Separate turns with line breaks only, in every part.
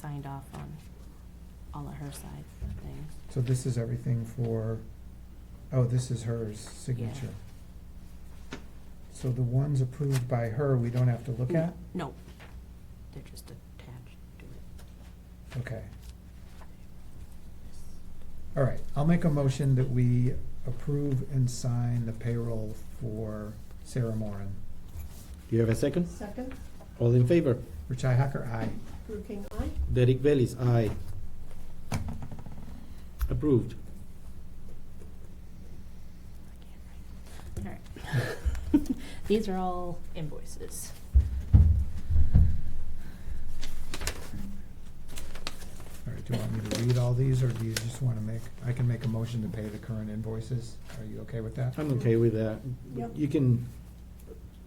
signed off on all of her side things.
So this is everything for, oh, this is hers signature. So the ones approved by her, we don't have to look at?
No, they're just attached to it.
Okay. All right, I'll make a motion that we approve and sign the payroll for Sarah Moran.
Do you have a second?
Second,
All in favor?
Richi Hacker, aye.
Drew King, aye.
Derek Bellis, aye. Approved.
All right. These are all invoices.
All right, do you want me to read all these, or do you just want to make, I can make a motion to pay the current invoices? Are you okay with that?
I'm okay with that.
Yep.
You can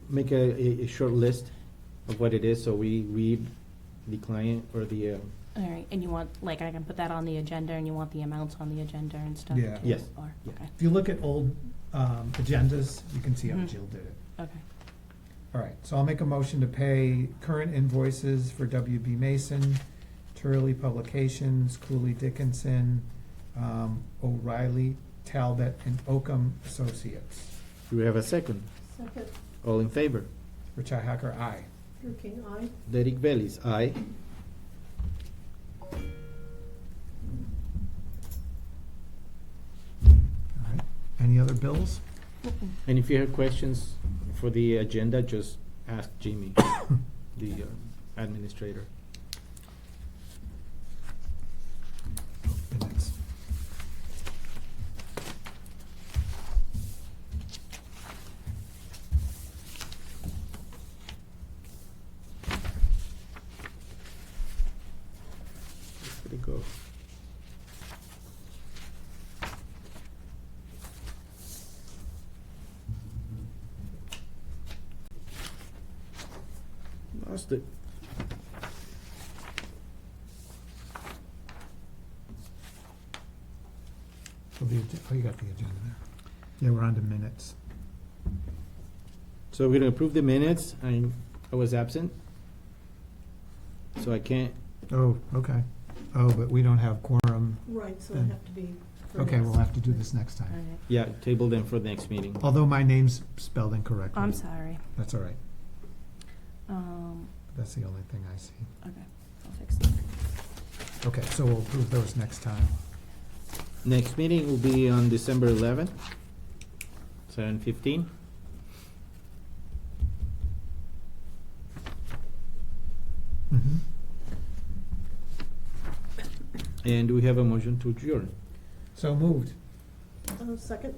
make a, a, a short list of what it is, so we read the client or the, uh,
All right, and you want, like, I can put that on the agenda and you want the amounts on the agenda and stuff?
Yeah.
too,
Yes.
Or,
Yeah.
okay,
If you look at old um, agendas, you can see how
Mhm.
Jill did it.
okay.
All right, so I'll make a motion to pay current invoices for WB Mason, Turley Publications, Cooley Dickinson, um, O'Reilly, Talbot, and Oakham Associates.
do we have a second?
Second,
All in favor?
Richi Hacker, aye.
Drew King, aye.
Derek Bellis, aye.
All right, any other bills?
And if you have questions for the agenda, just ask Jimmy, the uh, administrator.
The next.
Let it go. Lost it.
Oh, the agen- oh, you got the agenda there. Yeah, we're on to minutes.
So we're gonna approve the minutes. I, I was absent. So I can't,
Oh, okay. Oh, but we don't have quorum.
Right, so
Then-
it'd have to be for
Mm. Okay,
next.
we'll have to do this next
All
time.
right.
yeah, table them for the next meeting.
Although my name's spelled incorrectly.
Oh, I'm sorry.
That's all right.
Um,
That's the only thing I see.
okay, I'll fix that.
Okay, so we'll approve those next time.
Next meeting will be on December eleventh, seven fifteen.
Mhm.
And we have a motion to adjourn.
So moved.
Uh, Second,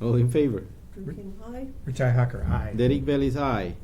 All in favor?
Drew King, aye.
Richi Hacker, aye.
Derek Bellis, aye.